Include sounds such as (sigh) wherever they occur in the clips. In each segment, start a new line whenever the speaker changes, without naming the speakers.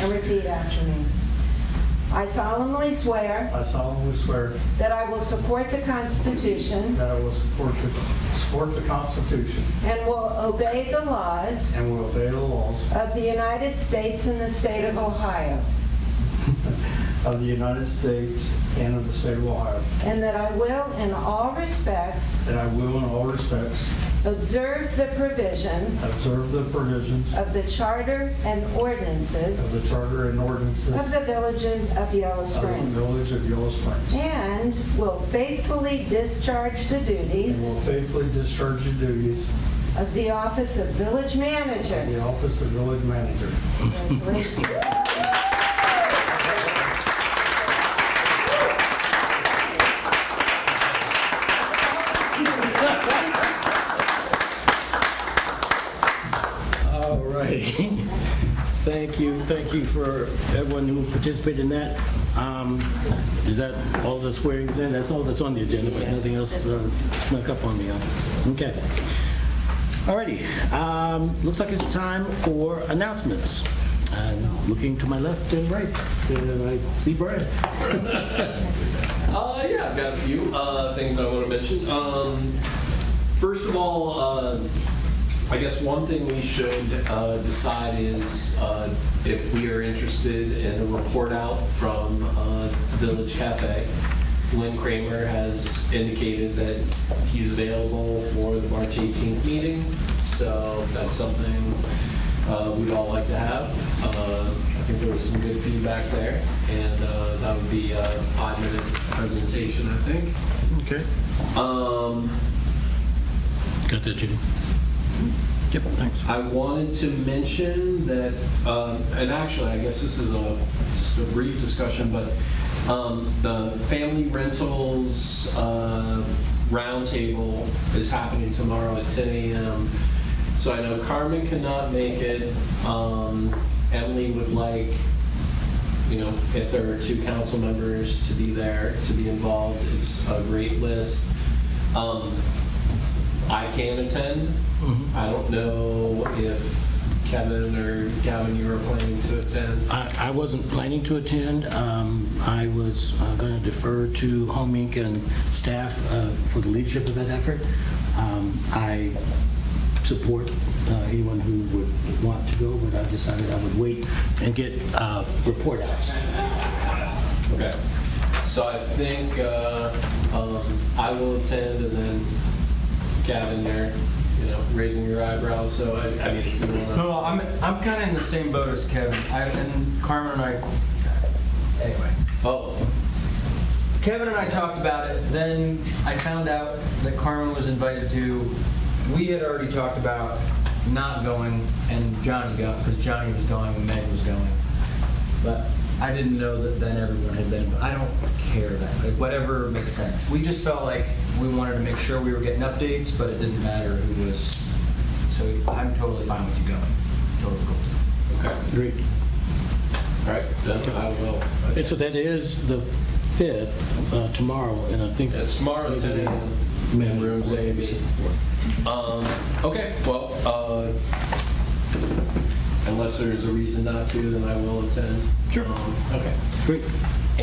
and repeat after me. I solemnly swear
I solemnly swear
that I will support the Constitution
that I will support the, support the Constitution
and will obey the laws
and will obey the laws
of the United States and the state of Ohio,
of the United States and of the state of Ohio,
and that I will, in all respects,
that I will in all respects
observe the provisions
observe the provisions
of the charter and
of
ordinances
the charter and ordinances
of
of
the village of Yellow
the
Springs,
village of Yellow Springs,
and will faithfully discharge the
and
duties
will faithfully discharge the duties
of the office of village
of (laughs)
manager.
the office of village manager.
Congratulations.
All right. (laughs) Thank you, thank you for everyone who participated in that. Um, Is that all the swearings in? That's all that's on the agenda, but nothing else uh, snuck up on me. huh? Okay. All righty. Um, Looks like it's time for announcements. I'm looking to my left and right, and I see Brian.
Uh, yeah, I've got a few uh, things I want to mention. Um, first of all, uh, I guess one thing we should uh, decide is uh, if we are interested in a report out from uh, Village Cafe. Lynn Kramer has indicated that he's available for the March 18th meeting, so that's something uh, we'd all like to have. Uh, I think there was some good feedback there, and uh, that would be a five-minute presentation, I think.
Okay.
Um,
Got that, Judy? Yep, thanks.
I wanted to mention that, um, and actually, I guess this is a, just a brief discussion, but um, the Family Rentals uh, Roundtable is happening tomorrow at 10 a.m. So I know Carmen cannot make it. Um, Emily would like you know, if there are two council members to be there, to be involved, it's a great list. Um, I can attend. I don't know if Kevin or Gavin, you were planning to attend.
I I wasn't planning to attend. Um, I was going to defer to Home Inc. and staff uh, for the leadership of that effort. Um, I support uh, anyone who would want to go, but I decided I would wait and get uh, report outs.
Okay. So I think uh, um, I will attend, and then Gavin, you're, you know, raising your eyebrows, so I, I mean, if you want to.
No, no, I'm, I'm kind of in the same boat as Kevin. I, and Carmen and I, anyway.
Oh,
Kevin and I talked about it, then I found out that Carmen was invited to, we had already talked about not going, and Johnny got, because Johnny was going and Meg was going. But I didn't know that then everyone had been, I don't care that, like, whatever makes sense. We just felt like we wanted to make sure we were getting updates, but it didn't matter who was, so I'm totally fine with you going. Totally cool.
okay.
Great.
All right, then I will.
And so that is the 5th uh, tomorrow, and I think...
It's tomorrow, 10 a.m.
Ma'am.
in rooms A and B. Um, Okay, well, uh, unless there's a reason not to, then I will attend.
Sure.
Um, Okay.
Great.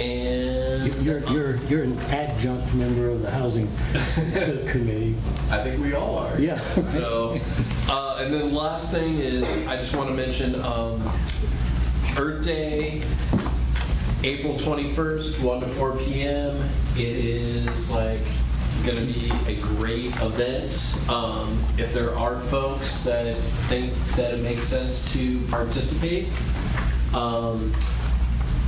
And
You're you're you're an adjunct member of the Housing (laughs) Committee.
I think we all are.
Yeah.
So, uh, and then last thing is, I just want to mention um, Earth Day, April 21st, 1 to 4 p.m. It is like going to be a great event. Um, if there are folks that think that it makes sense to participate, um,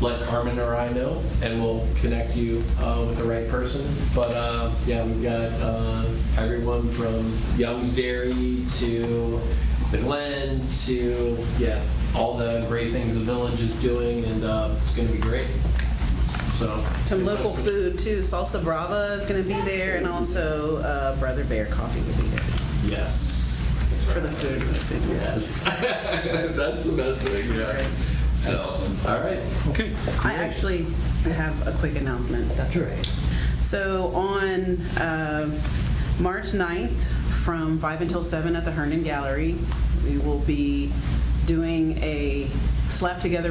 let Carmen or I know, and we'll connect you uh, with the right person. But uh, yeah, we've got uh, everyone from Young's Dairy to the Glen to yeah, all the great things the village is doing, and uh, it's going to be great. So
Some local food too. Salsa Brava is going to be there, and also uh, Brother Bear Coffee will be there
yes,
for the food.
yes, (laughs) that's the best thing. Yeah. So all right,
Okay.
I actually have a quick announcement.
That's right.
So on uh, March 9th, from 5 until 7 at the Herndon Gallery, we will be doing a slap together